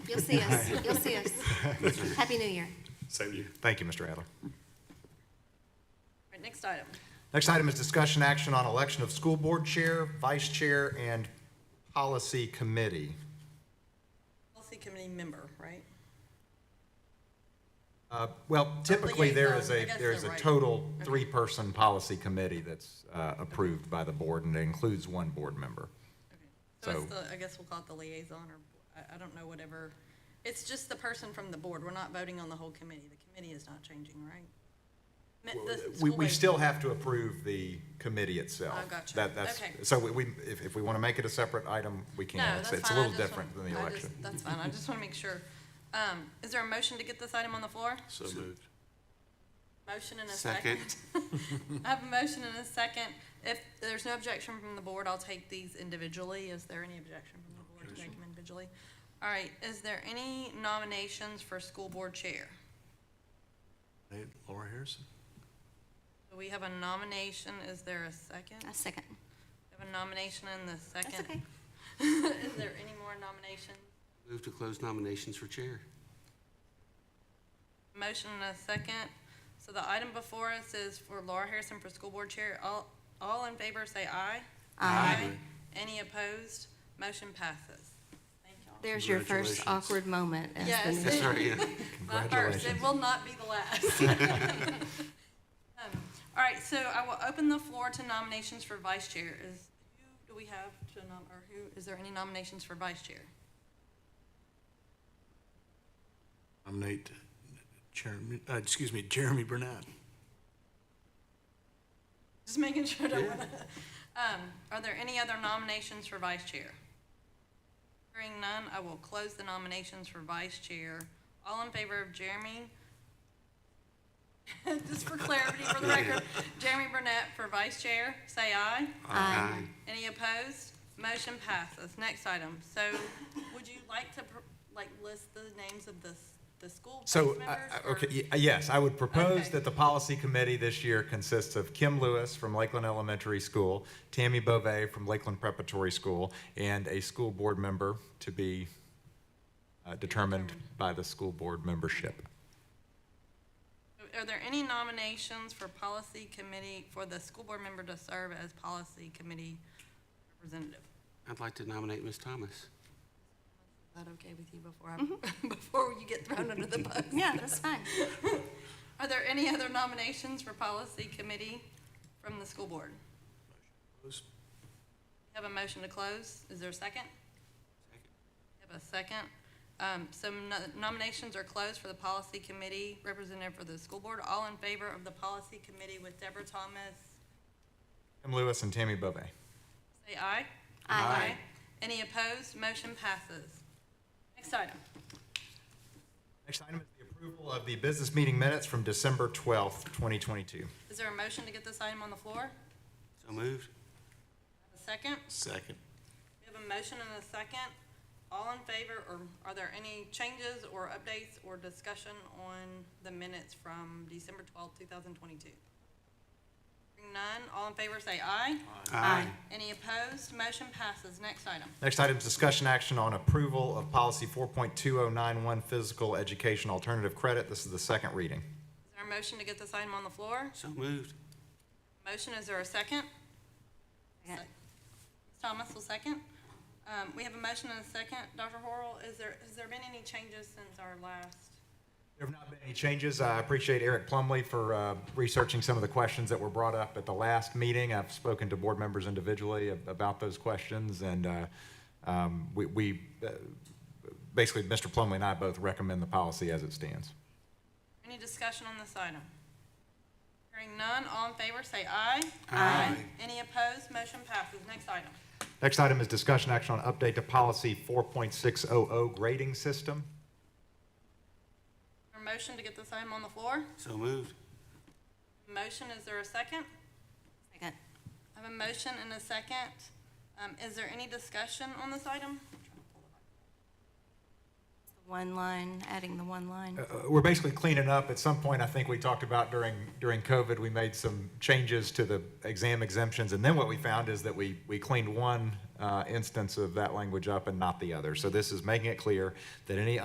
You'll see us, you'll see us. Happy New Year. Same to you. Thank you, Mr. Adler. All right, next item. Next item is discussion action on election of school board chair, vice chair, and policy committee. Policy committee member, right? Uh, Well, typically, there is liaison, I a, guess there is they're a right. total three-person policy committee that's uh, approved by the board, and it includes one board member. So it's So- the, I guess we'll call it the liaison or, I, I don't know, whatever. It's just the person from the board. We're not voting on the whole committee. The committee is not changing, right? Me- the uh, We, school we board- still have to approve the committee itself. Oh, gotcha. That- that's- Okay. So we- we, if, if we want to make it a separate item, we can. No, It's- that's It's a fine. I little just different than wanna- the I election. just- That's fine. I just want to make sure. Um, is there a motion to get this item on the floor? So moved. Motion and a second. Second. I have a motion and a second. If there's no objection from the board, I'll take these individually. Is there any objection from the board to take them individually? All right, is there any nominations for school board chair? Hey, Laura Harrison? So We have a nomination. Is there a second? A second. We have a nomination and the second. That's okay. Is there any more nominations? Move to close nominations for chair. Motion and a second. So the item before us is for Laura Harrison for school board chair. All, all in favor, say aye. Aye. Any opposed? Motion passes. Thank y'all. There's your first Congratulations. awkward moment as the Yes. new. That's right, yeah. My first, it will not be the last. Um, All right, so I will open the floor to nominations for vice chair. Is, who do we have to nom, or who, is there any nominations for vice chair? Nominate Jeremy, uh, excuse me, Jeremy Burnett. Just making sure that, we're not- um, are there any other nominations for vice chair? Hearing none, I will close the nominations for vice chair. All in favor of Jeremy? Just for clarity for the record, Jeremy Burnett for vice chair, say aye. Aye. Any opposed? Motion passes. Next item. So would you like to, pr- like, list the names of the, s- the school board So, members? I- I- or- okay, y- yes, I would propose Okay. that the policy committee this year consists of Kim Lewis from Lakeland Elementary School, Tammy Bove from Lakeland Preparatory School, and a school board member to be uh, determined by the school board membership. Are there any nominations for policy committee, for the school board member to serve as policy committee representative? I'd like to nominate Ms. Thomas. Is that okay with you before I, before you get thrown under the bus? Yeah, that's fine. Are there any other nominations for policy committee from the school board? Have a motion to close. Is there a second? Have a second. Um, some no- nominations are closed for the policy committee representative for the school board. All in favor of the policy committee with Deborah Thomas, Kim Lewis and Tammy Bove. say aye. Aye. Any opposed? Motion passes. Next item. Next item is the approval of the business meeting minutes from December 12th, 2022. Is there a motion to get this item on the floor? So moved. A second? Second. We have a motion and a second. All in favor, or are there any changes or updates or discussion on the minutes from December twelfth, two thousand twenty-two? None. All in favor, say aye. Aye. Any opposed? Motion passes. Next item. Next item is discussion action on approval of policy 4.2091, physical education alternative credit. This is the second reading. Is there a motion to get this item on the floor? So moved. Motion, is there a second? Second. Ms. Thomas will second. Um, we have a motion and a second. Dr. Horrell, is there, has there been any changes since our last? There have not been any changes. I appreciate Eric Plumley for uh, researching some of the questions that were brought up at the last meeting. I've spoken to board members individually ab- about those questions, and uh, um, we- we, uh, basically, Mr. Plumley and I both recommend the policy as it stands. Any discussion on this item? Hearing none, all in favor, say aye. Aye. Any opposed, motion passes. Next item. Next item is discussion action on update to policy 4.600, grading system. Our motion to get this item on the floor. So moved. Motion, is there a second? Second. I have a motion and a second. Um, is there any discussion on this item? One line, adding the one line. Uh, We're basically cleaning up. At some point, I think we talked about during, during COVID, we made some changes to the exam exemptions. And then what we found is that we, we cleaned one uh, instance of that language up and not the other. So this is making it clear that any